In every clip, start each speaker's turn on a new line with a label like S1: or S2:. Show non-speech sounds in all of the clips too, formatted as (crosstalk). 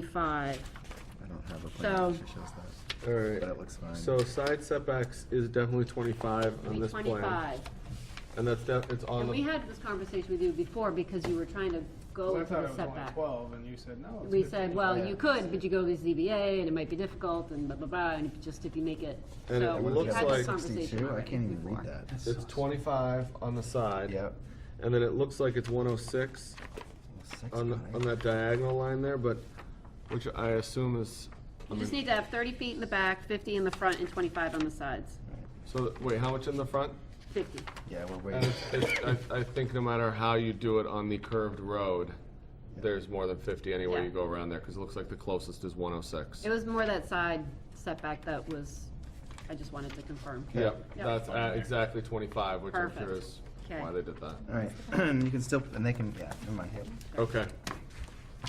S1: twenty-five.
S2: I don't have a plan
S1: So-
S2: that shows that.
S3: All right.
S2: That looks fine.
S3: So side setbacks is definitely twenty-five on this plan.
S1: Twenty-five.
S3: And that's, def- it's on
S1: And we
S3: the,
S1: had this conversation with you before because you were trying to go
S4: I
S1: to
S4: thought
S1: the
S4: it was only
S1: setback.
S4: twelve, and you said, no, it's
S1: We
S4: fifteen.
S1: said, well,
S2: Yeah.
S1: you could, but you go to the ZBA and it might be difficult and blah, blah, blah, and if- just if you make it.
S3: And it
S1: So we
S3: looks
S1: had this
S3: like-
S1: conversation
S2: 62? I
S1: already
S2: can't even
S1: before.
S2: read that.
S3: it's twenty-five on the side.
S2: Yep.
S3: And then it looks like it's one oh six
S2: Six
S3: on, the
S2: nine.
S3: on that diagonal line there, but, which I assume is,
S1: You just need to have thirty feet in the back, fifty in the front, and twenty-five on the sides.
S3: so, that- wait, how much in the front?
S1: Fifty.
S2: Yeah, we're
S3: And
S2: waiting.
S3: it's, it's, I, I think no matter how you do it on the curved road, there's more than fifty anywhere
S1: Yeah.
S3: you go around there, cause it looks like the closest is one oh six.
S1: It was more that side setback that was, I just wanted to confirm.
S3: Yep,
S1: Yep.
S3: that's at exactly twenty-five, which I'm sure
S1: Perfect.
S3: is
S1: Okay.
S3: why they did that.
S2: All right, (clears throat) and you can still, and they can, yeah, never mind.
S3: Okay.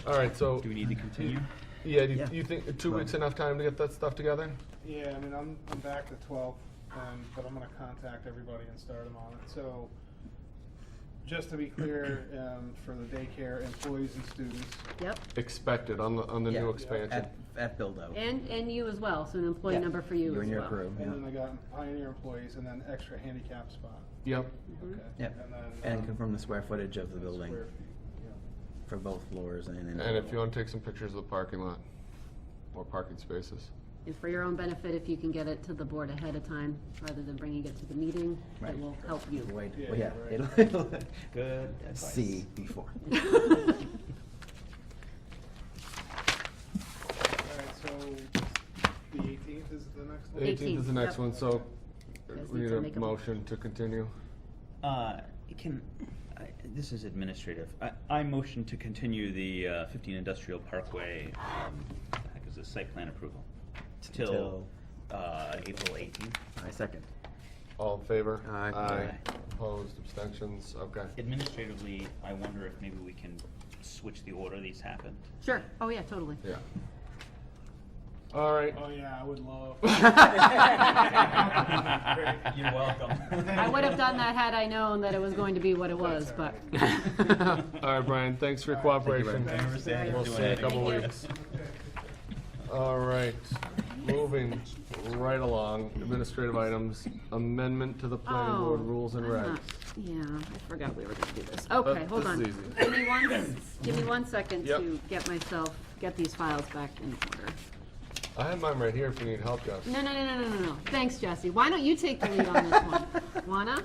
S3: All right, so,
S5: Do we need to continue?
S3: yeah, do you-
S2: Yeah.
S3: you think two weeks enough time to get that stuff together?
S4: Yeah, I mean, I'm, I'm back to twelve, um, but I'm gonna contact everybody and start them on it, so. Just to be clear,
S5: (clears throat)
S4: um, for the daycare employees and students,
S1: Yep,
S3: Expected on the, on the new
S5: Yeah.
S3: expansion.
S5: At, at build out.
S1: and, and you as well, so an employee
S5: Yeah.
S1: number for you as
S5: You
S1: well.
S5: and your crew,
S4: and then
S5: yeah.
S4: I got Pioneer employees, and then extra handicap spot,
S3: Yep,
S1: Mm-hmm.
S4: okay?
S5: Yeah,
S4: And then,
S5: and
S4: um,
S5: confirm the square footage of the building
S4: square feet, yeah.
S5: for both floors and. in-
S3: and if you wanna take some pictures of the parking lot, or parking spaces.
S1: And for your own benefit, if you can get it to the board ahead of time, rather than bringing it to the meeting, it
S5: Right.
S1: will help you.
S5: Wait,
S4: Yeah,
S5: well, yeah.
S4: right.
S5: it'll-
S2: (laughs)
S1: (laughs)
S5: it'll- Good advice.
S2: See (laughs) before.
S4: All right, so the eighteenth is the next one?
S3: Eighteenth is the next
S1: Yep.
S3: one, so
S1: Guys
S3: we
S1: need
S3: need
S1: to make a-
S3: a motion to continue.
S5: Uh,
S6: Can, I- this is administrative. I- I motion to continue the uh, 15 Industrial Parkway, um, what the heck is this, site plan approval, till uh, April 18th.
S5: I second.
S3: All in favor?
S5: Aye.
S3: Aye. Opposed, abstentions, okay.
S6: Administratively, I wonder if maybe we can switch the order these
S3: (laughs)
S6: happened.
S1: Sure, oh yeah, totally.
S3: Yeah. All right, (laughs)
S4: Oh, yeah, I would love.
S5: (laughs)
S4: (laughs)
S6: You're welcome.
S1: I would have done that had I known that it was going to be what it was, but.
S3: (laughs)
S1: oh.
S3: all right, Brian, thanks for your cooperation.
S5: Brian.
S3: We'll see you in a couple
S1: Thank you.
S3: weeks. All right, moving right along, administrative items, amendment to the planning board
S1: Oh,
S3: rules and
S1: I'm
S3: regs.
S1: not- Yeah, I forgot we were gonna do this. Okay, hold
S3: this
S1: on.
S3: is easy.
S1: Give me one, s- give me one second
S3: Yep.
S1: to get myself, get these files back in order.
S3: I have mine right here if you need help, Josh.
S1: No, no, no, no, no, no, no. Thanks, Jesse. Why don't you take the lead on this one?
S3: (laughs)
S1: Wanna?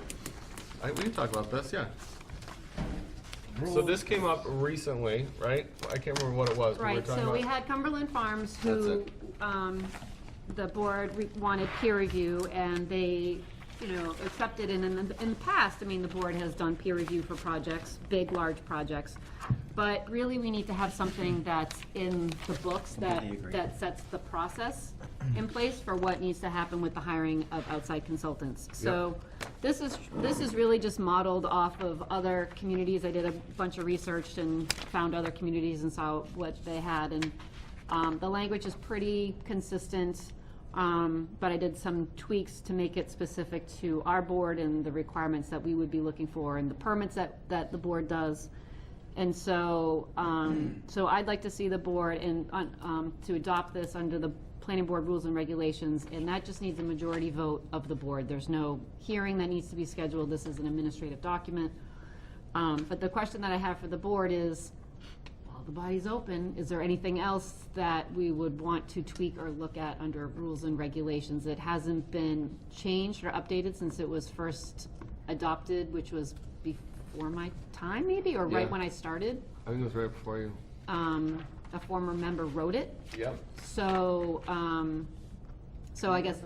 S3: I, we can talk about this, yeah. So this came up recently, right? I can't remember what it was. but we were
S1: Right,
S3: talking
S1: so we
S3: about-
S1: had Cumberland Farms
S3: That's
S1: who,
S3: it.
S1: um, the board re- wanted peer review and they, you know, accepted and in the, in the past, I mean, the board has done peer review for projects, big, large projects. But really, we need to have something that's in the books that,
S5: Completely agree.
S1: that sets the process in place for what needs to happen with the hiring of outside consultants. So this is, this is really just modeled off of other communities. I did a bunch of research and found other communities and saw what they had. And um, the language is pretty consistent, um, but I did some tweaks to make it specific to our board and the requirements that we would be looking for and the permits that, that the board does. And so, um, so I'd like to see the board and, on- um, to adopt this under the planning board rules and regulations, and that just needs a majority vote of the board. There's no hearing that needs to be scheduled, this is an administrative document. Um, but the question that I have for the board is, while the body's open, is there anything else that we would want to tweak or look at under rules and regulations that hasn't been changed or updated since it was first adopted, which was before my time maybe, or right
S3: Yeah.
S1: when I started?
S3: I think it was right before you.
S1: Um, a former member wrote it,
S3: Yep.
S1: so, um, so I guess,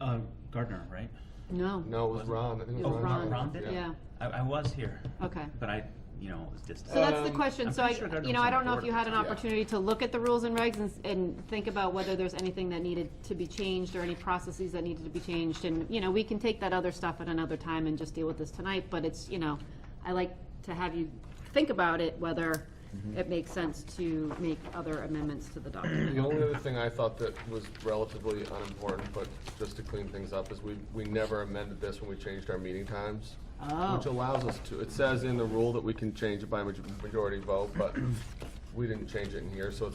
S6: Uh, Gardner, right?
S1: no.
S3: No, it was Ron. I think it
S1: It was
S3: was Ron.
S1: Oh, Ron, yeah,
S6: I, I was here,
S1: okay.
S6: but I, you know, was distant.
S1: So that's the
S3: Um,
S1: question,
S6: I'm
S1: so I,
S6: pretty sure Gardner
S1: you know,
S6: was
S1: I
S6: on
S1: don't
S6: the
S1: know if
S6: board
S1: you
S6: at
S1: had
S6: the
S1: an
S3: time. Yeah.
S1: opportunity to look at the rules and regs and, s- and think about whether there's anything that needed to be changed or any processes that needed to be changed, and, you know, we can take that other stuff at another time and just deal with this tonight, but it's, you know, I like to have you think about it, whether
S6: Mm-hmm.
S1: it makes sense to make other amendments to the document.
S3: The only other thing I thought that was relatively unimportant, but just to clean things up, is we, we never amended this when we changed our meeting times. Which
S1: Oh,
S3: allows us to, it says in the rule that we can change it by maj- majority vote, but we didn't change it in here, so it's